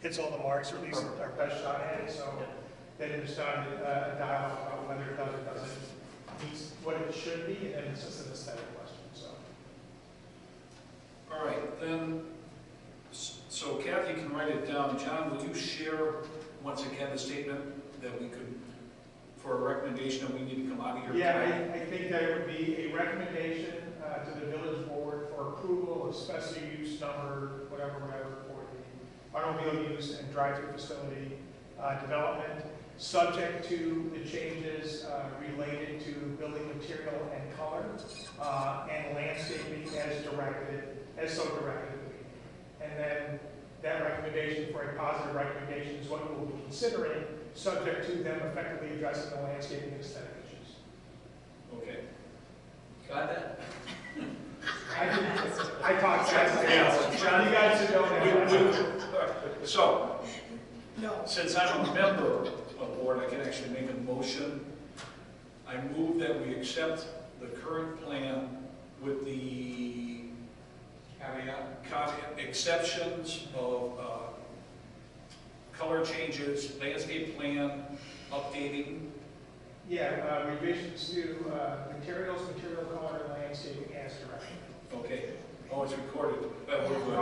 hits all the marks, or at least our best shot at it, so then it's time to uh, dialogue about whether it does or doesn't meet what it should be, and it's just an aesthetic question, so. All right, then, s- so Kathy can write it down. John, will you share, once again, the statement that we could, for a recommendation that we need to come out of here? Yeah, I, I think that it would be a recommendation uh, to the village board for approval of special use number, whatever, whatever, for the automobile use and drive-through facility uh, development, subject to the changes uh, related to building material and color uh, and landscaping as directed, as so directed. And then that recommendation for a positive recommendation is what we'll be considering, subject to them effectively addressing the landscaping and aesthetic issues. Okay. Got that? I did- I talked fast. John, you guys should know We- that. we- all right, So, No. since I'm a member of the board, I can actually make a motion. I move that we accept the current plan with the caveat- exceptions of uh, color changes, landscape plan, updating. Yeah, uh, revisions to uh, materials, material color, and landscaping as directed. Okay, oh, it's recorded. Uh, we're good. Oh,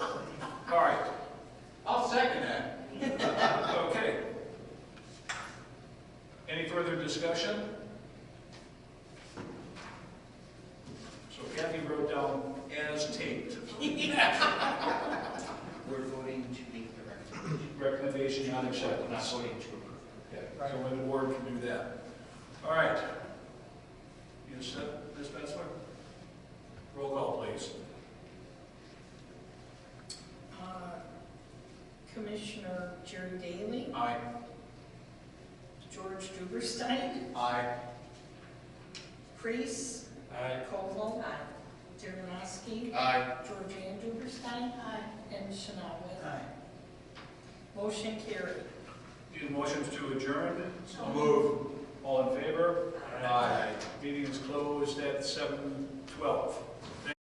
okay. All right, I'll second that. Okay. Any further discussion? So Kathy wrote down as taped, We're voting to make the recommendation. recommendation not accepted. We're not voting to approve. Yeah, So only the board can do that. All right. You set, Ms. Metzler? Roll call, please. Uh, Commissioner Jerry Daly, Aye. George Duberstein, Aye. Priest, Aye. Koval, Dernoski, Aye. Georgian Duberstein, and Shinawa. Motion carried. Need motions to adjourn? Move. All in favor? Aye. Meeting is closed at seven twelve.